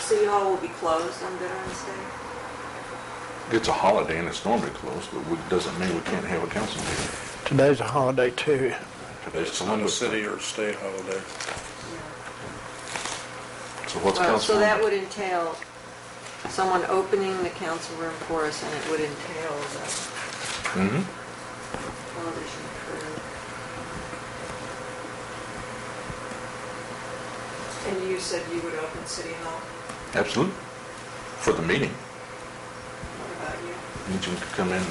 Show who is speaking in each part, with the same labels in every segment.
Speaker 1: City Hall will be closed on Veterans Day?
Speaker 2: It's a holiday and it's normally closed, but it doesn't mean we can't have a council meeting.
Speaker 3: Today's a holiday too.
Speaker 2: Today's
Speaker 4: Not a
Speaker 2: Columbus Day.
Speaker 4: city or state holiday.
Speaker 2: So what's
Speaker 1: Well,
Speaker 2: council?
Speaker 1: so that would entail someone opening the council room for us, and it would entail the
Speaker 2: Mhm.
Speaker 1: television crew. And you said you would open City Hall?
Speaker 2: Absolutely. For the meeting,
Speaker 1: What about you?
Speaker 2: you can come in.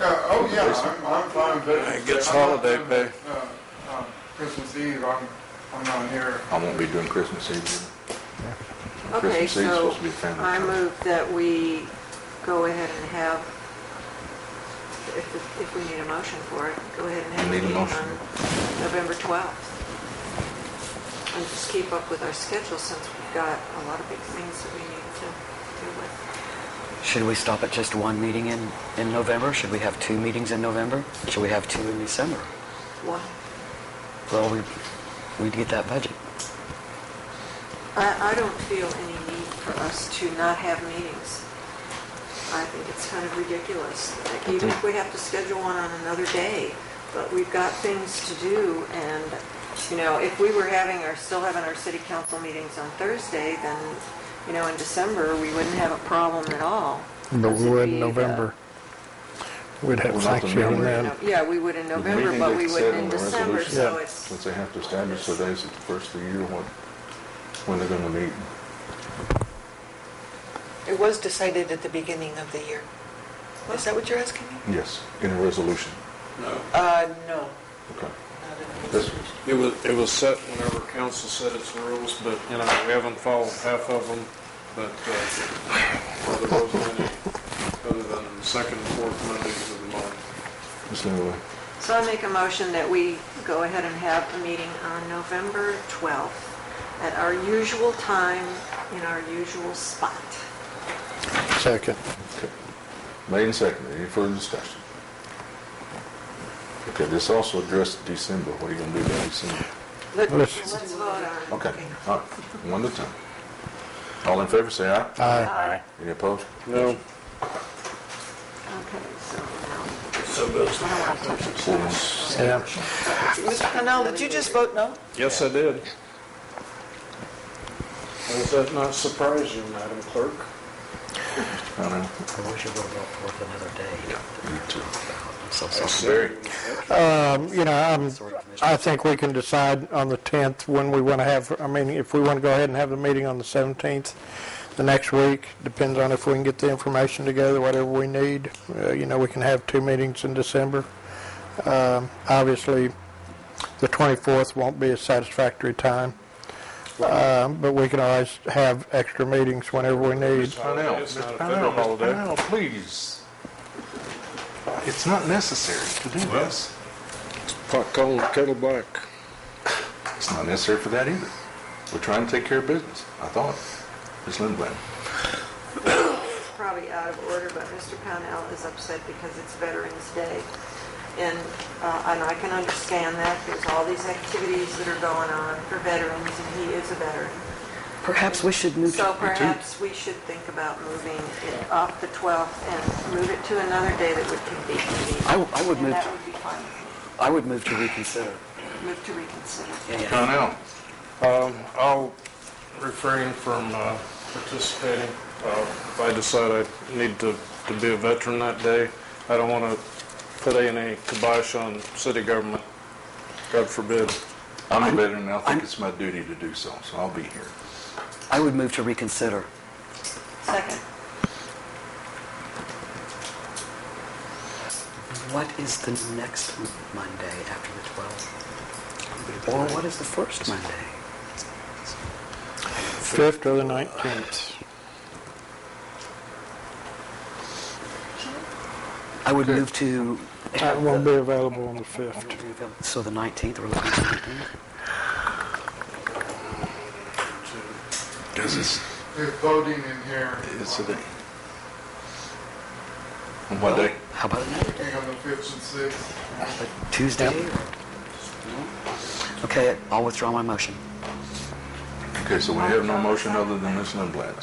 Speaker 5: Yeah, oh, yeah, I'm, I'm fine with it.
Speaker 4: It gets
Speaker 5: I'm not
Speaker 4: holiday
Speaker 5: doing,
Speaker 4: pay.
Speaker 5: uh, uh, Christmas Eve, I'm, I'm not here.
Speaker 2: I won't be doing Christmas Eve. either. On
Speaker 1: Okay,
Speaker 2: Christmas Eve is
Speaker 1: so
Speaker 2: supposed to be a family
Speaker 1: I
Speaker 2: time.
Speaker 1: move that we go ahead and have, if, if we need a motion for it, go ahead and have a
Speaker 2: Need a
Speaker 1: meeting on
Speaker 2: motion.
Speaker 1: November 12th. And just keep up with our schedule since we've got a lot of big things that we need to deal with.
Speaker 6: Should we stop at just one meeting in, in November? Should we have two meetings in November? Should we have two in December?
Speaker 1: One,
Speaker 6: Well, we, we'd get that budget.
Speaker 1: I, I don't feel any need for us to not have meetings. I think it's kind of ridiculous, like, even if we have to schedule one on another day, but we've got things to do, and, you know, if we were having, our still having our city council meetings on Thursday, then, you know, in December, we wouldn't have a problem at all.
Speaker 3: But
Speaker 1: Because
Speaker 3: we
Speaker 1: it'd
Speaker 3: would
Speaker 1: be uh,
Speaker 3: in
Speaker 1: the-
Speaker 3: November. We'd
Speaker 2: Well, not
Speaker 3: have
Speaker 2: the
Speaker 3: Thanksgiving
Speaker 2: memory.
Speaker 3: then.
Speaker 1: No, Yeah, we would in
Speaker 2: The
Speaker 1: November,
Speaker 2: meeting
Speaker 1: but
Speaker 2: date
Speaker 1: we
Speaker 2: set
Speaker 1: wouldn't
Speaker 2: on
Speaker 1: in
Speaker 2: the
Speaker 1: December,
Speaker 2: resolution,
Speaker 1: so
Speaker 3: Yeah.
Speaker 1: it's,
Speaker 2: Since they have to establish the days at the first of the year, what, when they're gonna meet.
Speaker 7: It was decided at the beginning of the year. Is that what you're asking me?
Speaker 2: Yes, in a resolution.
Speaker 4: No.
Speaker 7: Uh, no.
Speaker 2: Okay.
Speaker 7: not at all.
Speaker 2: This,
Speaker 4: It was, it was set whenever council set its rules, but, you know, we haven't followed half of them, but, uh, other than, other than the second and fourth Mondays of the month.
Speaker 2: this anyway,
Speaker 1: So I make a motion that we go ahead and have a meeting on November 12th at our usual time, in our usual spot.
Speaker 3: Second.
Speaker 2: okay. Made and seconded, any further discussion? Okay, this also addressed December, what are you gonna do about December?
Speaker 1: Let's
Speaker 3: Let's-
Speaker 1: let's vote on.
Speaker 2: Okay, all right, one at a time. All in favor, say aye.
Speaker 3: Aye.
Speaker 1: Aye.
Speaker 2: Any opposed?
Speaker 4: No.
Speaker 1: Okay, so now,
Speaker 4: So goes.
Speaker 1: I don't want to touch it.
Speaker 2: Yes.
Speaker 3: Yeah.
Speaker 7: Mr. Canal, did you just vote no?
Speaker 4: Yes, I did. Does that not surprise you, Madam Clerk?
Speaker 2: I know.
Speaker 6: I wish it would have brought forth another day.
Speaker 2: me too.
Speaker 6: I'm so
Speaker 4: I
Speaker 6: sorry.
Speaker 4: said-
Speaker 3: Um, You know, I'm- I think we can decide on the 10th when we want to have, I mean, if we want to go ahead and have the meeting on the 17th, the next week, depends on if we can get the information together, whatever we need. Uh, You know, we can have two meetings in December. Um, Obviously, the 24th won't be a satisfactory time, Um, but we can always have extra meetings whenever we need.
Speaker 2: Parnell,
Speaker 4: It's not a
Speaker 2: Mr.
Speaker 4: federal
Speaker 2: Parnell, Mr.
Speaker 4: holiday.
Speaker 2: Parnell, please. It's not necessary to do this.
Speaker 4: Pot calling kettle black.
Speaker 2: It's not necessary for that either. We're trying to take care of business, I thought. Ms. Lindblad.
Speaker 1: It's probably out of order, but Mr. Pownell is upset because it's Veterans Day. And, uh, and I can understand that, there's all these activities that are going on for veterans, and he is a veteran.
Speaker 6: Perhaps we should move
Speaker 1: So
Speaker 6: to
Speaker 1: perhaps we should think about moving it off the 12th and move it to another day that would convene.
Speaker 6: I w- I would
Speaker 1: And
Speaker 6: move
Speaker 1: that
Speaker 6: to-
Speaker 1: would be fine.
Speaker 6: I would move to reconsider.
Speaker 1: Move to reconsider.
Speaker 6: Yeah.
Speaker 2: Parnell.
Speaker 4: Um, I'll refrain from uh, participating. Uh, If I decide I need to, to be a veteran that day, I don't want to put any kibosh on city government, God forbid.
Speaker 2: I'm a veteran, and I think
Speaker 6: I'm-
Speaker 2: it's my duty to do so, so I'll be here.
Speaker 6: I would move to reconsider.
Speaker 1: Second.
Speaker 6: What is the next Monday after the 12th? Or what is the first Monday?
Speaker 3: 5th or the 19th.
Speaker 6: I would move to,
Speaker 3: I won't be available on the 5th.
Speaker 6: so the 19th, we're looking at the 19th?
Speaker 2: Because it's,
Speaker 5: There's voting in here.
Speaker 2: On what day?
Speaker 6: How about another day?
Speaker 5: Being on the fifth and sixth.
Speaker 6: Tuesday? Okay, I'll withdraw my motion.
Speaker 2: Okay. Okay, so we have no motion other than Ms. Lindblad.